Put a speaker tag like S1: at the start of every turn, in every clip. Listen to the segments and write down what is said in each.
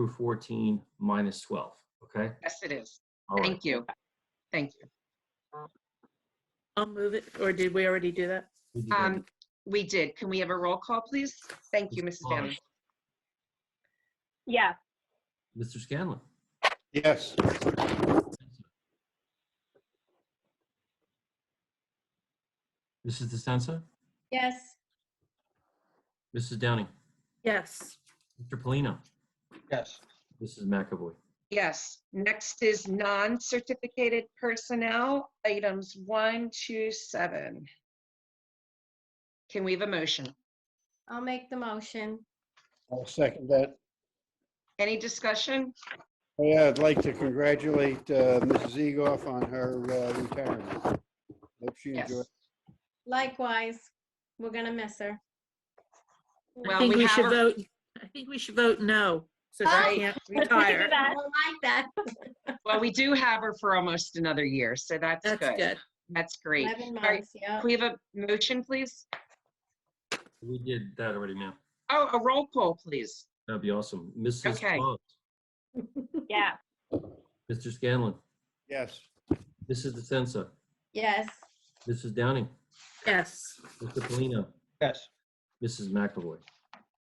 S1: through 14 minus 12, okay?
S2: Yes, it is.
S1: All right.
S2: Thank you. Thank you.
S3: I'll move it, or did we already do that?
S1: We did that.
S2: Um, We did. Can we have a roll call, please? Thank you, Mrs. Bailey.
S4: Yes.
S1: Mr. Scanlon,
S5: Yes.
S1: Mrs. DeSensa,
S4: Yes.
S1: Mrs. Downing,
S3: Yes.
S1: Mr. Polino,
S5: Yes.
S1: Mrs. McAvoy.
S2: Yes. Next is non-certificated personnel, items one to seven. Can we have a motion?
S4: I'll make the motion.
S5: I'll second that.
S2: Any discussion?
S5: Oh, Yeah, I'd like to congratulate uh, Mrs. Egoff on her uh, retirement. Hope she
S2: Yes.
S5: enjoys.
S4: Likewise, we're gonna miss her.
S3: I
S2: Well,
S3: think
S2: we
S3: we
S2: have
S3: should
S2: a-
S3: vote, I think we should vote no, so
S4: Oh.
S3: she can't retire.
S4: I don't like that.
S2: Well, we do have her for almost another year, so that's
S3: That's
S2: good.
S3: good.
S2: That's great.
S4: Eleven
S2: All right.
S4: months, yeah.
S2: Can we have a motion, please?
S1: We did that already, ma'am.
S2: Oh, a roll call, please.
S1: That'd be awesome. Mrs.
S2: Okay.
S1: Claus,
S4: Yeah.
S1: Mr. Scanlon,
S5: Yes.
S1: Mrs. DeSensa,
S4: Yes.
S1: Mrs. Downing,
S3: Yes.
S1: Mr. Polino,
S5: Yes.
S1: Mrs. McAvoy.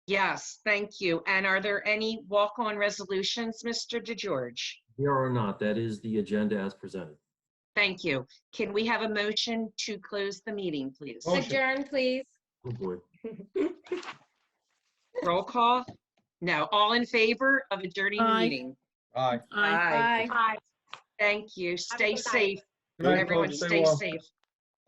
S2: Yes, thank you. And are there any walk-on resolutions, Mr. DeGeorge?
S1: Here or not, that is the agenda as presented.
S2: Thank you. Can we have a motion to close the meeting, please?
S5: Motion.
S4: Adjourn, please.
S1: Oh, boy.
S2: Roll call? No, all in favor of adjourning the
S3: Aye.
S2: meeting?
S6: Aye.
S3: Aye.
S4: Bye.
S2: Thank you. Stay
S4: good night.
S2: safe,
S6: Good night,
S2: everyone.
S6: folks. Stay
S2: Stay
S6: well.
S2: safe.